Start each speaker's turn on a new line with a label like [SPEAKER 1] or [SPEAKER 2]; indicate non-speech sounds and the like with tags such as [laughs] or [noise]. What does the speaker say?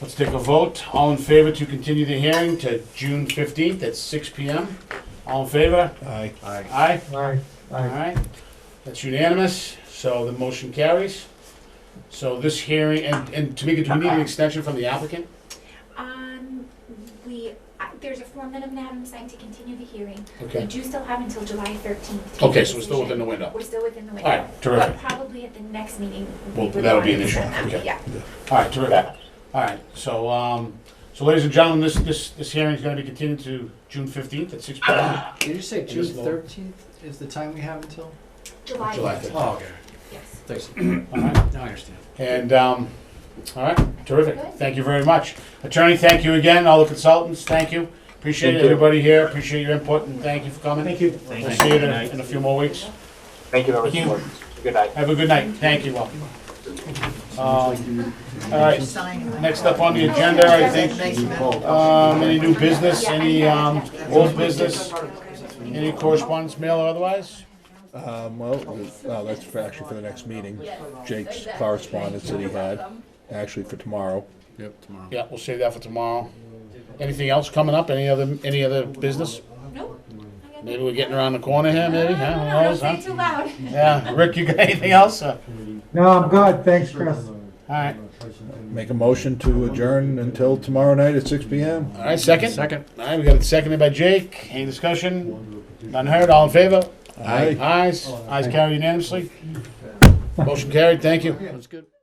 [SPEAKER 1] Let's take a vote. All in favor to continue the hearing to June fifteenth at six P M? All in favor?
[SPEAKER 2] Aye.
[SPEAKER 3] Aye.
[SPEAKER 1] Aye?
[SPEAKER 4] Aye,
[SPEAKER 1] All
[SPEAKER 4] aye.
[SPEAKER 1] right. That's unanimous, so the motion carries. So this hearing, and, and Tamika, do we need an extension from the applicant?
[SPEAKER 5] Um, we, I- there's a form that I'm gonna have him sign to continue the hearing. We
[SPEAKER 1] Okay,
[SPEAKER 5] do still have until July thirteenth.
[SPEAKER 1] okay, so we're still within the window.
[SPEAKER 5] We're still within the
[SPEAKER 1] All
[SPEAKER 5] window.
[SPEAKER 1] right, terrific.
[SPEAKER 5] But probably at the next meeting. we
[SPEAKER 1] Well,
[SPEAKER 5] would
[SPEAKER 1] that'll be an
[SPEAKER 5] want to
[SPEAKER 1] issue,
[SPEAKER 5] send that,
[SPEAKER 1] okay.
[SPEAKER 5] Yeah.
[SPEAKER 1] All right, terrific. All right, so, um, so ladies and gentlemen, this, this, this hearing is gonna be continued to June fifteenth at six P M.
[SPEAKER 3] Did you say
[SPEAKER 1] It
[SPEAKER 3] June
[SPEAKER 1] is low.
[SPEAKER 3] thirteenth is the time we have until?
[SPEAKER 5] July.
[SPEAKER 1] July
[SPEAKER 5] 13th,
[SPEAKER 3] Oh, okay.
[SPEAKER 5] Yes.
[SPEAKER 3] Thanks.
[SPEAKER 1] All right,
[SPEAKER 3] Now I understand.
[SPEAKER 1] and, um, all right, terrific.
[SPEAKER 5] Good.
[SPEAKER 1] Thank you very much. Attorney, thank you again, all the consultants, thank you. Appreciate
[SPEAKER 2] Thank you.
[SPEAKER 1] everybody here, appreciate your input, and thank you for coming.
[SPEAKER 4] Thank you.
[SPEAKER 1] We'll see you in a, in a few more weeks.
[SPEAKER 6] Thank you very
[SPEAKER 1] Thank you.
[SPEAKER 6] much. Good night.
[SPEAKER 1] Have a good night. Thank you, welcome. All right, next up on the agenda,
[SPEAKER 5] Oh,
[SPEAKER 1] I think, um, any new business, any, um, old business, any correspondence, mail or otherwise?
[SPEAKER 2] Um, well, uh, that's for actually for the next meeting. Jake's correspondence that he had, actually for tomorrow.
[SPEAKER 3] Yep, tomorrow.
[SPEAKER 1] Yeah, we'll save that for tomorrow. Anything else coming up? Any other, any other business?
[SPEAKER 5] Nope. I got
[SPEAKER 1] Maybe we're getting around the corner here, maybe, huh? Who
[SPEAKER 5] No, don't
[SPEAKER 1] knows,
[SPEAKER 5] say it
[SPEAKER 1] huh?
[SPEAKER 5] too loud.
[SPEAKER 1] Yeah, Rick, you got [laughs] anything else? Uh,
[SPEAKER 4] No, I'm good, thanks, Chris.
[SPEAKER 1] All right,
[SPEAKER 2] Make a motion to adjourn until tomorrow night at six P M.
[SPEAKER 1] all right, second? Second. All right, we got it seconded by Jake. Any discussion? None heard, all in favor?
[SPEAKER 2] Aye.
[SPEAKER 1] Ayes, ayes carried unanimously. Motion carried, thank you.
[SPEAKER 3] That's good.